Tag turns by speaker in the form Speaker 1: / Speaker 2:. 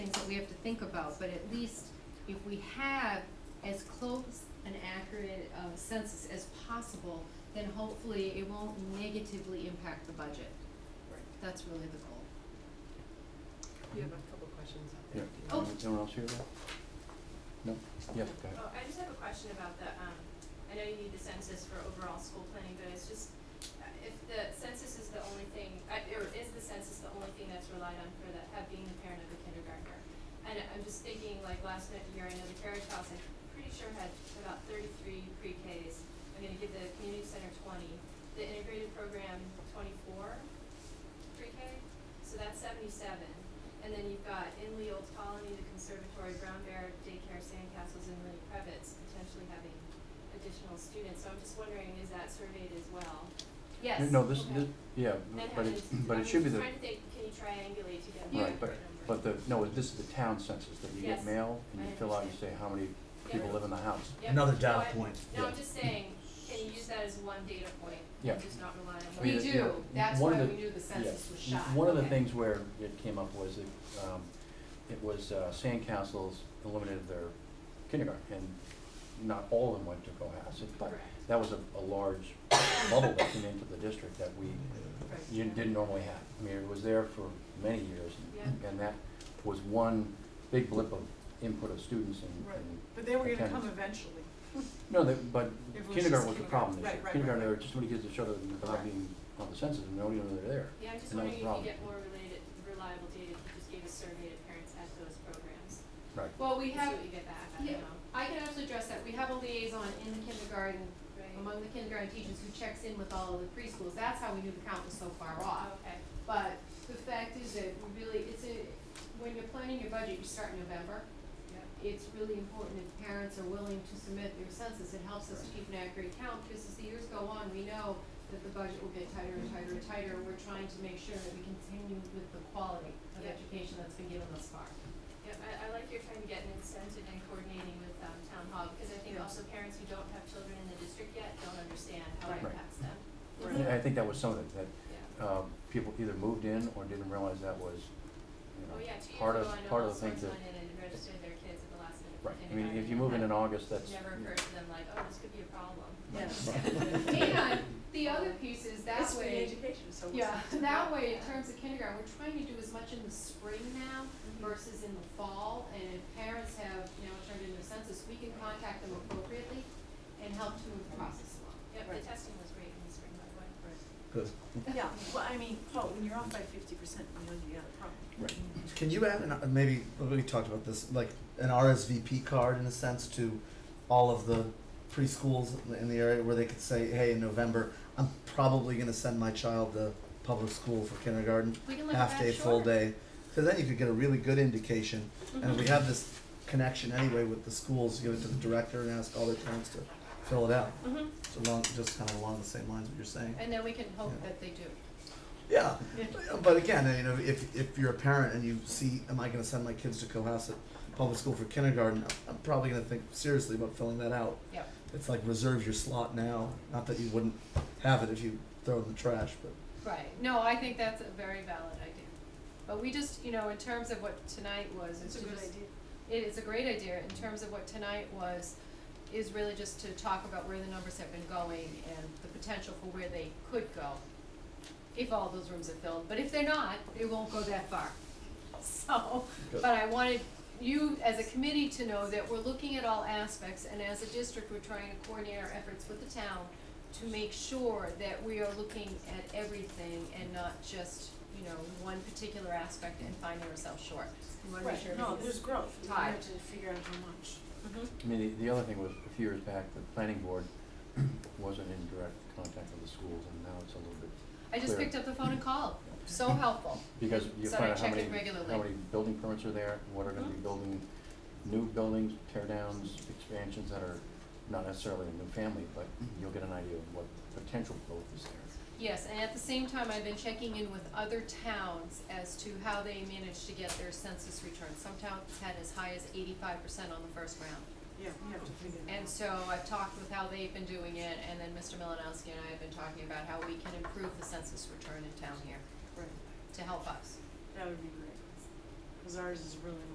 Speaker 1: we have to think about, but at least if we have as close an accurate uh census as possible, then hopefully it won't negatively impact the budget.
Speaker 2: Right.
Speaker 1: That's really the goal.
Speaker 2: You have a couple questions out
Speaker 3: Yeah.
Speaker 2: there.
Speaker 1: Oh.
Speaker 3: Anyone- Anyone else here? though? No? Yeah, go ahead.
Speaker 4: Oh, I just have a question about the, um, I know you need the census for overall school planning, but it's just, uh, if the census is the only thing, uh, or is the census the only thing that's relied on for the, uh, being the parent of a kindergartner? And I'm just thinking, like, last night- year, I know the Carriage House, I'm pretty sure had about thirty-three pre-Ks. I'm gonna give the community center twenty, the integrated program twenty-four pre-K, so that's seventy-seven. And then you've got Inley, Old Colony, the Conservatory, Brown Bear, Daycare, Sandcastles, and Lynn Krebitz potentially having additional students. So I'm just wondering, is that surveyed as well? Yes,
Speaker 3: No, this,
Speaker 4: okay.
Speaker 3: this, yeah,
Speaker 4: And how
Speaker 3: but
Speaker 4: does-
Speaker 3: it, but
Speaker 4: I'm
Speaker 3: it should be the,
Speaker 4: just trying to think, can you triangulate to get a
Speaker 3: right, but,
Speaker 4: better number?
Speaker 3: but the, no, this is the town census that you get
Speaker 4: Yes,
Speaker 3: mail and
Speaker 4: I
Speaker 3: you fill out, you say
Speaker 4: understand.
Speaker 3: how many people
Speaker 4: Yeah.
Speaker 3: live in the house.
Speaker 4: Yep,
Speaker 5: Another
Speaker 4: no,
Speaker 5: data
Speaker 4: I-
Speaker 5: point,
Speaker 4: No,
Speaker 3: yeah.
Speaker 4: I'm just saying, can you use that as one data point?
Speaker 3: Yeah.
Speaker 4: Just not rely on.
Speaker 3: I
Speaker 1: We
Speaker 3: mean, it- you
Speaker 1: do,
Speaker 3: know,
Speaker 1: that's
Speaker 3: one
Speaker 1: why
Speaker 3: of
Speaker 1: we
Speaker 3: the-
Speaker 1: knew the census was
Speaker 3: Yeah.
Speaker 1: shot.
Speaker 3: One of the
Speaker 4: Okay.
Speaker 3: things where it came up was that, um, it was, uh, Sandcastles eliminated their kindergarten, and not all of them went to Cohasset, but
Speaker 4: Correct.
Speaker 3: that was a, a large bubble that came into the district that we
Speaker 4: Right.
Speaker 3: you didn't normally have. I mean, it was there for many years, and-
Speaker 4: Yeah.
Speaker 3: and that was one big blip of input of students and,
Speaker 6: Right.
Speaker 3: and,
Speaker 6: But they were gonna come
Speaker 3: Attendance.
Speaker 6: eventually.
Speaker 3: no, that, but
Speaker 6: It was
Speaker 3: kindergarten
Speaker 6: just
Speaker 3: was the problem
Speaker 6: kindergarten. Right,
Speaker 3: this year.
Speaker 6: right, right,
Speaker 3: Kindergarten, there
Speaker 6: right.
Speaker 3: were just too many kids that showed up without
Speaker 6: Correct.
Speaker 3: being on the census, and nobody knew they were there.
Speaker 4: Yeah, I'm just
Speaker 3: And that was the
Speaker 4: wondering if you
Speaker 3: problem.
Speaker 4: get more related, reliable data if you just gave a survey to parents at those programs.
Speaker 3: Right.
Speaker 1: Well, we
Speaker 4: See
Speaker 1: have,
Speaker 4: what you get back, I
Speaker 1: yeah,
Speaker 4: don't know.
Speaker 1: I can actually address that, we have a liaison in the kindergarten,
Speaker 4: Right.
Speaker 1: among the kindergarten teachers who checks in with all of the preschools, that's how we knew the count was so far off.
Speaker 4: Okay.
Speaker 1: But the fact is that we really, it's a, when you're planning your budget, you start in November.
Speaker 4: Yep.
Speaker 1: It's really important if parents are willing to submit their census, it helps us to keep an accurate count, because as the years go on, we know that the budget will get tighter and tighter and tighter, and we're trying to make sure that we continue with the quality of
Speaker 4: Yeah.
Speaker 1: education that's been given thus far.
Speaker 4: Yeah, I, I like you're trying to get an incentive and coordinating with, um, town hall, because I think
Speaker 1: Yeah.
Speaker 4: also parents who don't have children in the district yet don't understand how
Speaker 1: Right.
Speaker 4: it impacts them.
Speaker 1: Right.
Speaker 3: And I think that was some of it, that,
Speaker 4: Yeah.
Speaker 3: um, people either moved in or didn't realize that was, you
Speaker 4: Oh,
Speaker 3: know,
Speaker 4: yeah, two years
Speaker 3: part
Speaker 4: ago,
Speaker 3: of,
Speaker 4: I know
Speaker 3: part
Speaker 4: all
Speaker 3: of the thing
Speaker 4: sorts
Speaker 3: that,
Speaker 4: went in and registered their kids at the last minute. for
Speaker 3: right, I mean, if you
Speaker 4: kindergarten,
Speaker 3: move in
Speaker 4: and
Speaker 3: in August,
Speaker 4: it
Speaker 3: that's.
Speaker 4: Never occurred to them like, oh, this could be a problem.
Speaker 1: Yes.
Speaker 4: Yeah.
Speaker 1: And the other piece is that way.
Speaker 6: It's free education, so what's.
Speaker 1: Yeah,
Speaker 6: the-
Speaker 1: that way, in terms of kindergarten, we're trying to do as much in the spring now
Speaker 6: Mm-hmm.
Speaker 1: versus in the fall, and if parents have, you know, turned in their census, we can contact them appropriately and help to move the process along.
Speaker 4: Yep, the testing was great in the spring, by the way.
Speaker 5: Good.
Speaker 6: Yeah, well, I mean, Paul, when you're off by fifty percent, you know you got a problem.
Speaker 3: Right.
Speaker 5: Can you add an, uh, maybe we talked about this like an RSVP card in a sense to all of the preschools in the area where they could say, hey, in November, I'm probably going to send my child to public school for kindergarten,
Speaker 1: We can look at
Speaker 5: half day,
Speaker 1: that,
Speaker 5: full
Speaker 1: sure.
Speaker 5: day, because then you could get a really good indication. And if we have this connection anyway with the schools, give it to the director and ask all their parents to fill it out.
Speaker 3: Mm-hmm.
Speaker 1: Mhm.
Speaker 5: It's along, just kind of along the same lines what you're saying.
Speaker 1: And then we can hope
Speaker 5: Yeah.
Speaker 1: that they do.
Speaker 5: Yeah, but again, you know, if if you're a parent and you see, am I going to send my kids to Cohasset Public School for kindergarten? I'm probably going to think seriously about filling that out.
Speaker 1: Yep.
Speaker 5: It's like reserve your slot now. Not that you wouldn't have it if you throw it in the trash, but
Speaker 1: Right, no, I think that's a very valid idea. But we just, you know, in terms of what tonight was, it's
Speaker 6: It's
Speaker 1: just.
Speaker 6: a good idea.
Speaker 1: It is a great idea in terms of what tonight was, is really just to talk about where the numbers have been going and the potential for where they could go if all those rooms are filled, but if they're not, it won't go that far. So, but I wanted you as a committee to know that we're looking at all aspects and as a district, we're trying to coordinate our efforts with the town to make sure that we are looking at everything and not just, you know, one particular aspect and finding ourselves short. We wanna make sure
Speaker 6: Right, no,
Speaker 1: everything's-
Speaker 6: there's growth, you
Speaker 1: tied.
Speaker 6: have to figure out how much.
Speaker 1: Mhm.
Speaker 3: I mean, the, the other thing was, a few years back, the planning board wasn't in direct contact with the schools, and now it's a little bit,
Speaker 1: I just
Speaker 3: Clear.
Speaker 1: picked up the phone and called. So helpful.
Speaker 3: because you
Speaker 1: So I
Speaker 3: find out how
Speaker 1: check
Speaker 3: many,
Speaker 1: it regularly.
Speaker 3: how many building permits are there, what are gonna be
Speaker 1: Mhm.
Speaker 4: Oh.
Speaker 3: building, new buildings, tear downs, expansions that are not necessarily a new family, but you'll get an idea of what potential growth is there.
Speaker 1: Yes, and at the same time, I've been checking in with other towns as to how they managed to get their census returns. Some towns had as high as eighty-five percent on the first round.
Speaker 6: Yeah, you have to figure that out.
Speaker 1: And so I've talked with how they've been doing it, and then Mr. Malinowski and I have been talking about how we can improve the census return in town here
Speaker 6: Right,
Speaker 1: to help us.
Speaker 6: that would be great, cause ours is really